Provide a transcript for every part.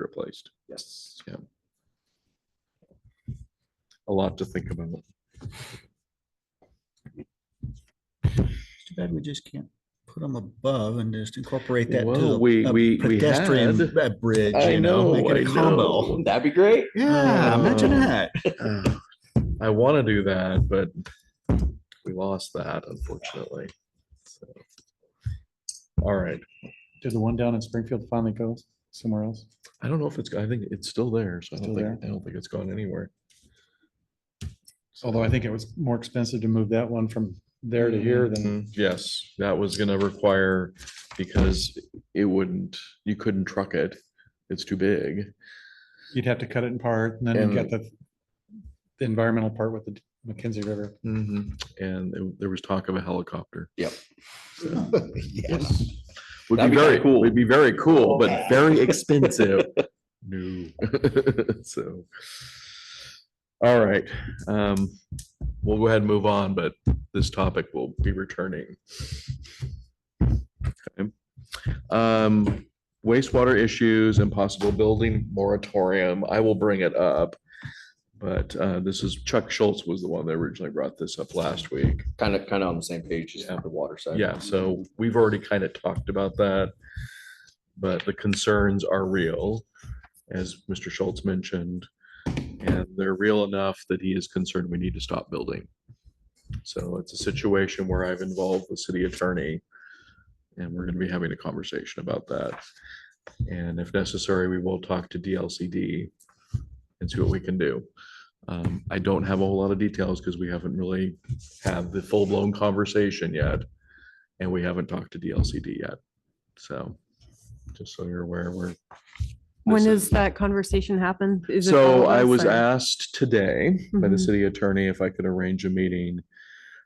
replaced. Yes. A lot to think about. Too bad we just can't put them above and just incorporate that to Well, the we- a we- we pedestrian had- uh, bridge. I you know, know, make it a I combo. That'd be great. Yeah, imagine Oh. that. Uh, I want to do that, but we lost that unfortunately. So, All right. Did the one down in Springfield finally go somewhere else? I don't know if it's, I think it's still there, so I don't Still think, I don't think it's gone anywhere. Although I think it was more expensive to move that one from there to here than, Mhm. Yes, that was gonna require, because it wouldn't, you couldn't truck it. It's too big. you'd have to cut it in part and then you got the the environmental part with the Mackenzie River. And there- there was talk of a helicopter. Yes. Would That'd be be kinda very, cool. would be very cool, but Yeah. very expensive. No. So. All right, um, we'll go ahead and move on, but this topic will be returning. Okay. Um, wastewater issues and possible building moratorium. I will bring it up. But, uh, this is Chuck Schultz was the one that originally brought this up last week. Kind of, kind of on the same page as Yeah. the water side. Yeah, so we've already kind of talked about that. But the concerns are real, as Mr. Schultz mentioned. And they're real enough that he is concerned we need to stop building. So it's a situation where I've involved the city attorney. And we're going to be having a conversation about that. And if necessary, we will talk to DLCD and see what we can do. Um, I don't have a whole lot of details because we haven't really had the full-blown conversation yet. And we haven't talked to DLCD yet. So just so you're aware, we're. When this does that conversation happen? Is it So all of I us was or- asked today by the Mhm. city attorney if I could arrange a meeting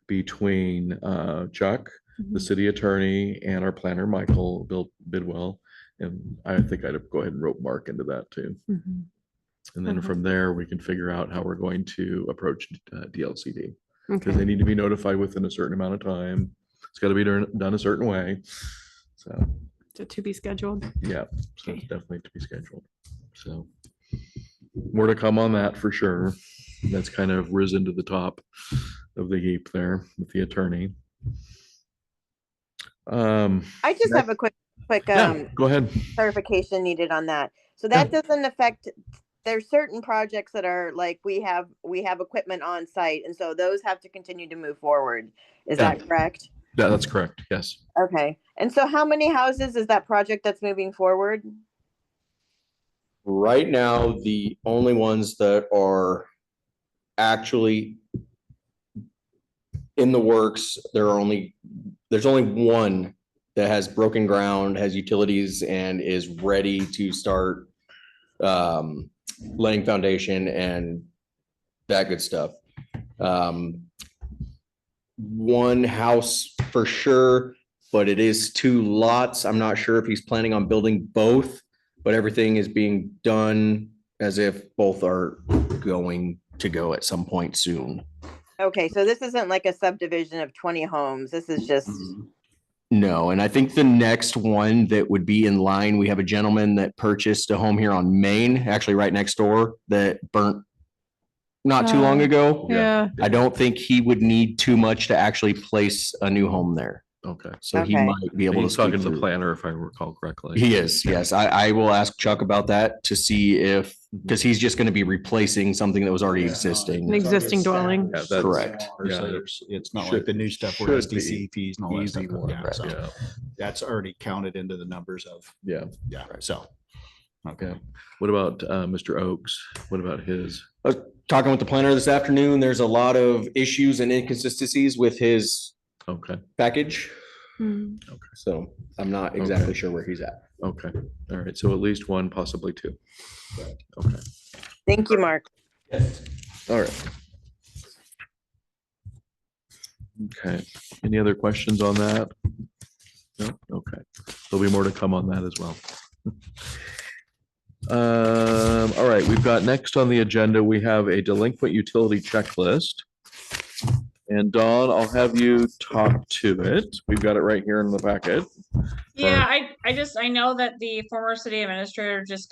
between uh, Chuck, the Mhm. city attorney, and our planner, Michael Bill Bidwell. And I think I'd go ahead and rope Mark into that too. Mhm. And then Okay. from there, we can figure out how we're going to approach uh, DLCD. Because they Okay, need to be notified within a certain amount of time. It's got to be done done a certain way. So. so to be scheduled. Yeah, so it's Okay. definitely to be scheduled. So more to come on that for sure. That's kind of risen to the top of the heap there with the attorney. Um, I just have a quick, quick yeah, um, go ahead. clarification needed on that. So that doesn't affect, there's certain projects that are like, we have, we have equipment on site. And so those have to continue to move forward. Is Yeah. that correct? Yeah, that's correct. Yes. Okay. And so how many houses is that project that's moving forward? Right now, the only ones that are actually in the works, there are only, there's only one that has broken ground, has utilities and is ready to start um, laying foundation and that good stuff. Um, one house for sure, but it is two lots. I'm not sure if he's planning on building both but everything is being done as if both are going to go at some point soon. Okay. So this isn't like a subdivision of 20 homes. This is just, Mm-hmm. No, and I think the next one that would be in line, we have a gentleman that purchased a home here on Main, actually right next door, that burnt not too long Oh. ago. Yeah, I don't think he would need too much to actually place a new home there, Okay. so he Okay. might be able to He's speak talking to the through. planner, if I recall correctly. He is, yes. I, I will ask Chuck about that to see if, because he's just going to be replacing something that was already Yeah. an existing. existing dwelling. Yeah, that's- Correct. Yeah, Yeah. there's- It's not should- like the new stuff should where be SDC fees and all that easy stuff. work, Yeah, so Yeah, That's already counted into the numbers of, yeah. yeah, so. Okay. What about uh, Mr. Oakes? What about his? talking with the planner this afternoon, there's a lot of issues and inconsistencies with his Okay, package. Mm. So I'm not exactly Okay. sure where he's at. okay. All right. So at least one, possibly two. Okay. thank you, Mark. All right. Okay, any other questions on that? No, okay, there'll be more to come on that as well. Um, all right, we've got next on the agenda, we have a delinquent utility checklist. And Dawn, I'll have you talk to it. We've got it right here in the packet. Yeah, I, I just, I know that the former city administrator just